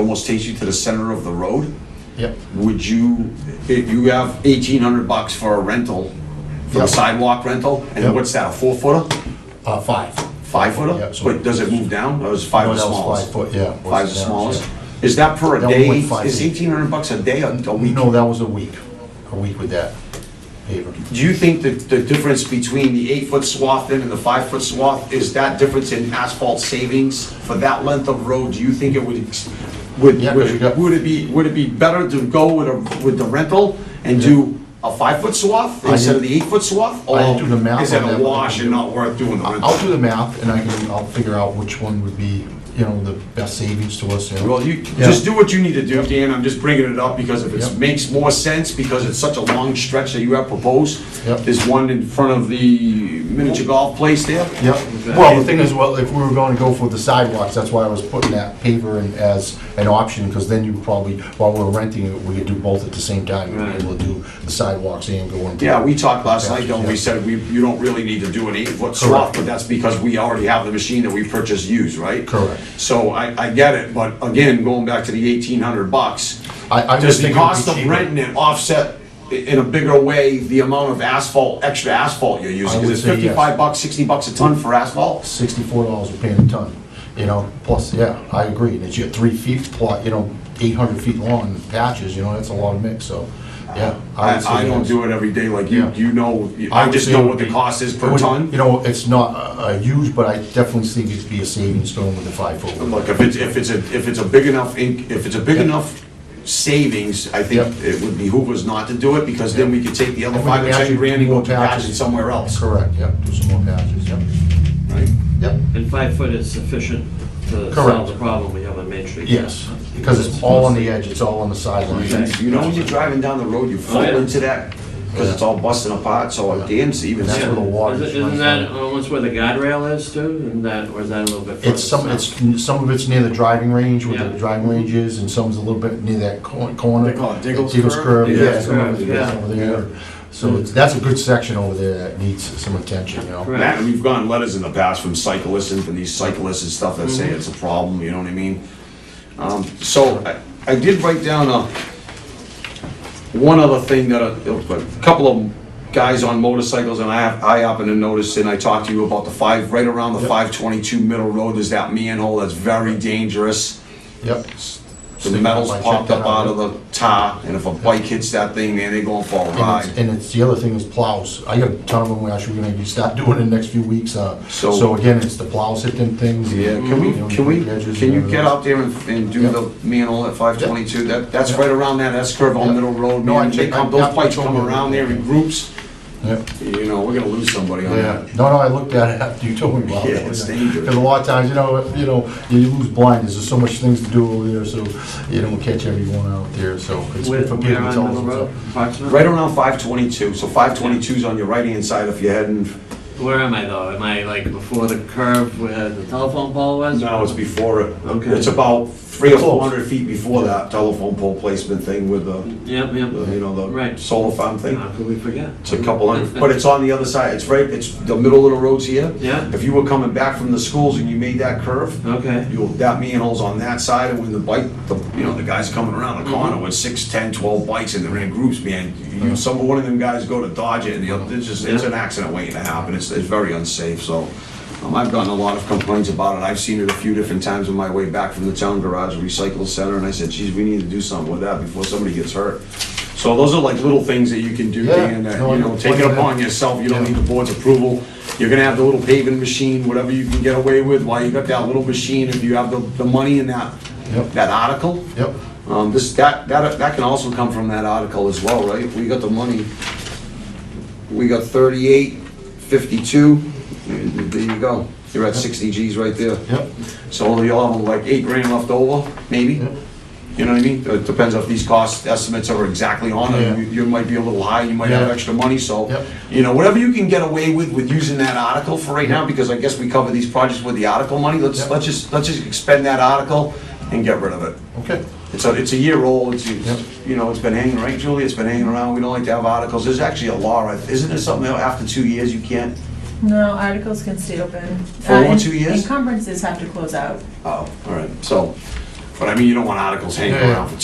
almost takes you to the center of the road. Yep. Would you, if you have eighteen hundred bucks for a rental, for a Yep. sidewalk rental, Yep. and what's that, a four footer, Uh, five. five footer? Yep, so- But does it move down, or is five the What else? smallest? Five foot, yeah. Five's the Yeah. smallest? Is that per a That one day, went five is feet. eighteen hundred bucks a day or a week? No, that was a week, a week with that paver. Do you think that the difference between the eight-foot swath then and the five-foot swath, is that difference in asphalt savings for that length of road? Do you think it would, ex- would, Yeah, 'cause you would got- would it be, would it be better to go with a, with the rental and do a five-foot swath I instead of the didn't- eight-foot swath? I didn't do the math Or Is that on that, a but I wash can and do- not worth doing the I'll rental? do the math and I can, I'll figure out which one would be, you know, the best savings to us. you know. Well, you, Yeah. just do what you need to do, Dan, I'm just bringing it up because if it Yep. makes more sense, because it's such a long stretch that you have proposed. Yep. There's one in front of the miniature golf place there. Yep. Well, the thing is, well, if we were going to go for the sidewalks, that's why I was putting that paver in as an option, because then you probably, while we're renting it, we could do both at the same time. We'd be able to do the sidewalks and go and. Yeah, we talked last night, though, we Yeah. said we, you don't really need to do an eight-foot swath, Correct. but that's because we already have the machine that we purchased used, right? Correct. So I, I get it, but again, going back to the eighteen hundred bucks, I- I does just the think it would cost be of cheaper. renting it offset i- in a bigger way the amount of asphalt, extra asphalt you're using? I would Because it's say yes. fifty-five bucks, sixty bucks a ton for asphalt. Sixty-four dollars a pan a ton, you know, plus, yeah, I agree, and it's your three feet plot, you know, eight hundred feet long patches, you know, that's a lot of mix, so, yeah. I, would say I don't yes. do it every day like you, Yeah. you know, I I would just say know it what would the be- cost is It per would- ton. You know, it's not uh, uh, huge, but I definitely think it'd be a savings going with the five foot. Look, if it's, if it's a, if it's a big enough, in- if it's a big Yeah. enough savings, I think Yeah. it would behoove us not to do it, because then Yeah. we could take the other And we five can or ten actually grand do and go more to patches. patches somewhere else, Correct, yep, do some more patches, yep. right? Yep. And five foot is sufficient to Correct. solve the problem we have on Main Street? Yes, because it's all on the edge, it's all on the Okay. sideline. You know, when you're driving down the road, you fall Oh, yeah. into that, because it's all busting apart, so like Dan's even That's Yeah. where the said, water. Isn't isn't that almost where the guardrail is too, and that, or is that a little bit further? It's some, south? it's, some of it's near the driving range, where the Yeah. driving range is, and some's a little bit near that cor- corner. They call it Diggle's Curve? yeah, Diggle's some of Curve, it's yeah. over there. So it's, that's a good section over there that needs some attention, you know? Correct. Matt, we've gotten letters in the past from cyclists and from these cyclists and stuff that say Mm-hmm. it's a problem, you know what I mean? Um, So I- I did write down a, one other thing that, a a couple of guys on motorcycles and I have, I happen to notice, and I talked to you about the five, right around the Yep. five twenty-two middle road, there's that manhole that's very dangerous. Yep, The metal's I checked popped that up out out. of the tar, and if a bike hits that thing, man, they going for a and ride. it's, and it's, the other thing is plows. I got a ton of them, we're actually gonna start doing in the next few weeks, uh, So- so again, it's the plows hit them things. Yeah, can you know, we, can we, the edges can and you get everything. out there and, and do Yep. the manhole at five twenty-two? That, that's right around that S curve on Yep. Middle Road, No, I man. They checked- I- come, those yeah, bikes I told come you. around there in groups, Yep. you know, we're gonna lose somebody on Yeah, that. no, no, I looked at it after you told me about it. Yeah, it's dangerous. Because a lot of times, you know, you know, you lose blindness, there's so much things to do over there, so you don't catch everyone out there, so it's Where, good for where people to on tell Middle us. Road, what's up. approximately? Right around five twenty-two, so five twenty-two's on your right-hand side if you're heading, Where am I though? Am I like before the curve where the telephone pole was? no, it's before it. Okay. It's about three or Close. four hundred feet before that telephone pole placement thing with the, Yep, yep. the, you know, the Right. solar farm Uh-huh. thing. How could we forget? It's a couple hundred, but it's on the other side, it's right, it's the middle of the road's here. Yeah. If you were coming back from the schools and you made that curve, Okay, you'll, that manhole's on that side, and when the bike, the, you know, the guy's coming around the Mm-hmm. corner with six, ten, twelve bikes, and they're in groups, man, you, some, one of them guys go to dodge it, and the other, it's just, it's an accident waiting to happen, it's, it's very unsafe, so. Um, I've gotten a lot of complaints about it, I've seen it a few different times on my way back from the town garage recycle center, and I said, geez, we need to do something with that before somebody gets hurt. So those are like little things that you can do, Yeah, Dan, that, no, you know, I- take it upon yourself, you don't need the board's approval. You're gonna have the little paving machine, whatever you can get away with while you got that little machine, if you have the, the money in that, Yep. that article. Yep, Um, this, that, that, that can also come from that article as well, right? We got the money. We got thirty-eight, fifty-two, there you go. You're at sixty Gs right there. yep, So you'll have like eight grand left over, maybe? Yep. You know what I mean? It depends if these cost estimates are exactly on Yeah. it. You- You might be a little high, you might have Yeah. extra money, so, Yep. you know, whatever you can get away with, with using that article for right now, because I guess we cover these projects with the article money, let's, Yep. let's just, let's just expend that article and get rid of it. okay. It's a, it's a year old, it's, Yep. it's- you know, it's been hanging, right, Julie? It's been hanging around, we don't like to have articles. There's actually a law, right? isn't there something that after two years you can't? No, articles can stay open. For Uh, one, en- two years? Encumbrances have to close out. Oh, all right, so, But I mean, you don't want articles hanging Yeah, yeah. around for